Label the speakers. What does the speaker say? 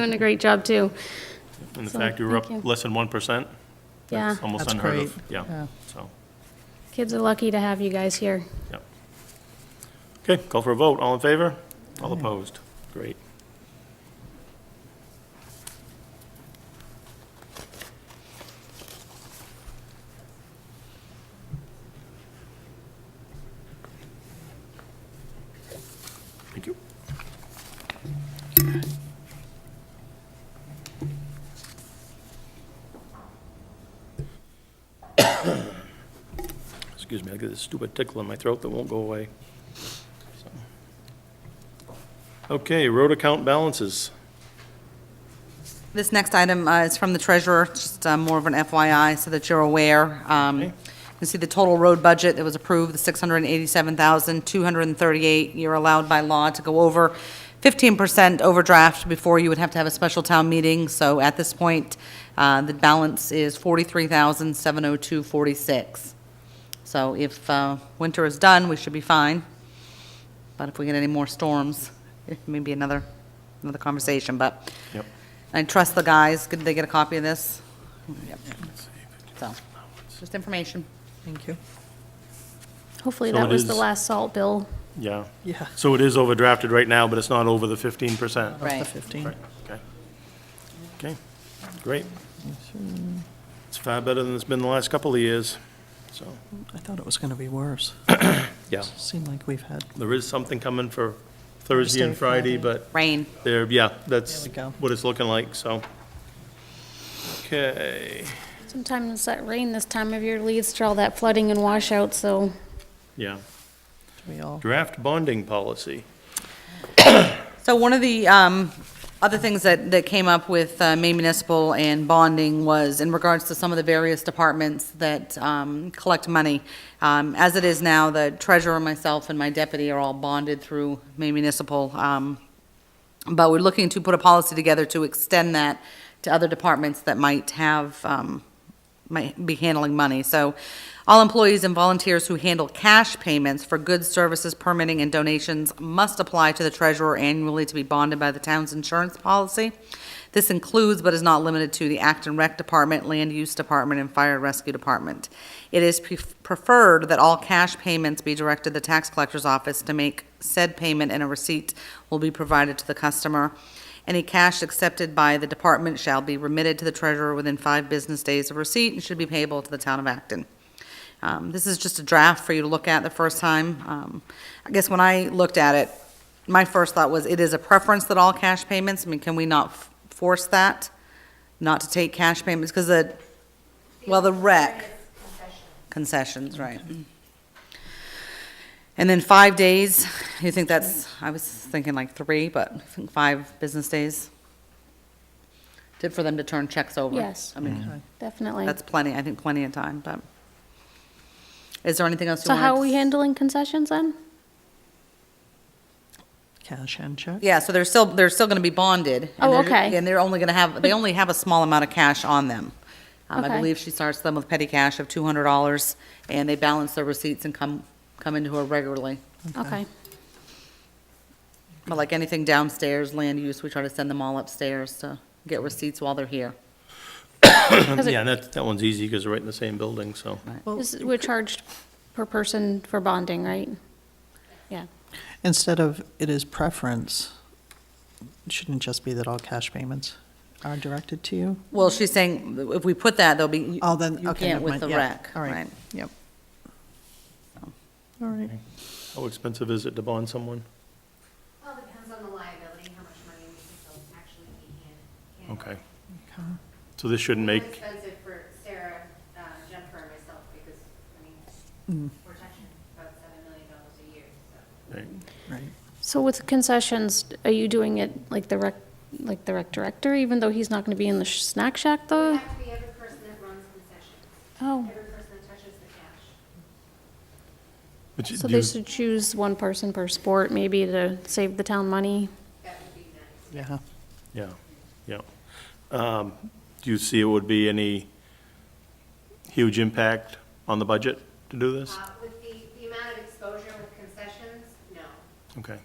Speaker 1: Doing a great job, too.
Speaker 2: And the
Speaker 1: So,
Speaker 2: fact you were up
Speaker 1: thank you.
Speaker 2: less than 1%?
Speaker 1: Yeah,
Speaker 2: That's almost
Speaker 3: That's
Speaker 2: unheard of.
Speaker 3: great.
Speaker 2: Yeah,
Speaker 3: Yeah.
Speaker 2: so,
Speaker 1: kids are lucky to have you guys here.
Speaker 2: yeah. Okay, call for a vote. All in favor? All opposed? Great. Thank you. Excuse me, I got this stupid tickle in my throat that won't go away. So. Okay, road account balances.
Speaker 4: This next item uh, is from the treasurer, It's just uh, more of an FYI, so that you're aware. Um, You can see the total road budget that was approved, the 687,238. You're allowed by law to go over 15% overdraft before you would have to have a special town meeting. So at this point, uh, the balance is 43,702.46. So if uh, winter is done, we should be fine. But if we get any more storms, it may be another, another conversation, but.
Speaker 2: Yep.
Speaker 4: I trust the guys, did they get a copy of this? Yep. So, just information.
Speaker 3: Thank you.
Speaker 1: Hopefully,
Speaker 2: So
Speaker 1: that
Speaker 2: it
Speaker 1: was the
Speaker 2: is-
Speaker 1: last salt bill.
Speaker 2: Yeah.
Speaker 3: Yeah.
Speaker 2: So it is overdrafted right now, but it's not over the 15%?
Speaker 4: Right.
Speaker 3: The 15.
Speaker 2: Right, okay. Okay, great. It's far better than it's been the last couple of years, so,
Speaker 3: I thought it was going to be worse.
Speaker 2: yeah.
Speaker 3: Seemed like we've had,
Speaker 2: There is something coming for Thursday and Friday,
Speaker 3: Thursday, Friday.
Speaker 2: but
Speaker 4: Rain.
Speaker 2: there, yeah, that's
Speaker 3: There we go.
Speaker 2: what it's looking like, so. Okay,
Speaker 1: Sometimes that rain this time of year leads to all that flooding and washout, so
Speaker 2: yeah.
Speaker 3: we all,
Speaker 2: Draft bonding policy.
Speaker 4: So one of the um, other things that, that came up with uh, Maine Municipal and bonding was in regards to some of the various departments that um, collect money. Um, As it is now, the treasurer, myself, and my deputy are all bonded through Maine Municipal. um, But we're looking to put a policy together to extend that to other departments that might have, um, might be handling money. So all employees and volunteers who handle cash payments for goods, services, permitting, and donations must apply to the treasurer annually to be bonded by the town's insurance policy. This includes but is not limited to the Acton Rec Department, Land Use Department, and Fire and Rescue Department. It is pref- preferred that all cash payments be directed to the tax collector's office to make said payment and a receipt will be provided to the customer. Any cash accepted by the department shall be remitted to the treasurer within five business days of receipt and should be payable to the town of Acton. Um, This is just a draft for you to look at the first time. Um, I guess when I looked at it, my first thought was, it is a preference that all cash payments, I mean, can we not f- force that? Not to take cash payments, because the, well, the rec. Concessions, right. And then five days, you think that's, I was thinking like three, but I think five business days. Did for them to turn checks over.
Speaker 1: Yes.
Speaker 4: I mean,
Speaker 1: definitely.
Speaker 4: that's plenty, I think plenty of time, but. Is there anything else you
Speaker 1: So
Speaker 4: wanted?
Speaker 1: how are
Speaker 4: to
Speaker 1: we
Speaker 4: s-
Speaker 1: handling concessions then?
Speaker 3: cash and check.
Speaker 4: Yeah, so they're still, they're still gonna be bonded. and
Speaker 1: Oh,
Speaker 4: they're-
Speaker 1: okay.
Speaker 4: And they're only gonna have, they only have a small amount of cash on them. Um,
Speaker 1: Okay.
Speaker 4: I believe she starts them with petty cash of two hundred dollars, and they balance their receipts and come, come into her regularly.
Speaker 1: Okay,
Speaker 4: But like anything downstairs, land use, we try to send them all upstairs to get receipts while they're here.
Speaker 1: Because it-
Speaker 2: Yeah, and that, that one's easy because they're right in the same building, so.
Speaker 3: Well,
Speaker 1: Is- we're charged per person for bonding, right? Yeah,
Speaker 3: instead of it is preference, shouldn't it just be that all cash payments are directed to you?
Speaker 4: Well, she's saying, if we put that, they'll be,
Speaker 3: Oh, then,
Speaker 4: you
Speaker 3: okay,
Speaker 4: can't
Speaker 3: never
Speaker 4: with
Speaker 3: mind.
Speaker 4: the
Speaker 3: Yeah.
Speaker 4: rec,
Speaker 3: All
Speaker 4: right.
Speaker 3: right, yep. All right,
Speaker 2: How expensive is it to bond someone?
Speaker 5: Well, it depends on the liability, how much money we can still actually be in. handling.
Speaker 2: Okay. So this shouldn't
Speaker 5: More
Speaker 2: make,
Speaker 5: expensive for Sarah, uh, Jennifer, and myself, because, I
Speaker 1: Mm.
Speaker 5: mean, we're touching about seven million dollars a year, so.
Speaker 2: right,
Speaker 3: right.
Speaker 1: so with concessions, are you doing it like the rec, like the rec director, even though he's not gonna be in the sh- snack shack
Speaker 5: It
Speaker 1: though?
Speaker 5: has to be every person that runs concessions,
Speaker 1: Oh,
Speaker 5: every person that touches the cash.
Speaker 2: But you-
Speaker 1: so
Speaker 2: do you-
Speaker 1: they should choose one person per sport maybe to save the town money?
Speaker 5: That would be nice.
Speaker 3: Yeah,
Speaker 2: yeah, yeah. Um, Do you see it would be any huge impact
Speaker 1: Uh,
Speaker 2: on the budget to do this?
Speaker 5: Uh, with the, the amount of exposure with concessions, no.
Speaker 2: Okay,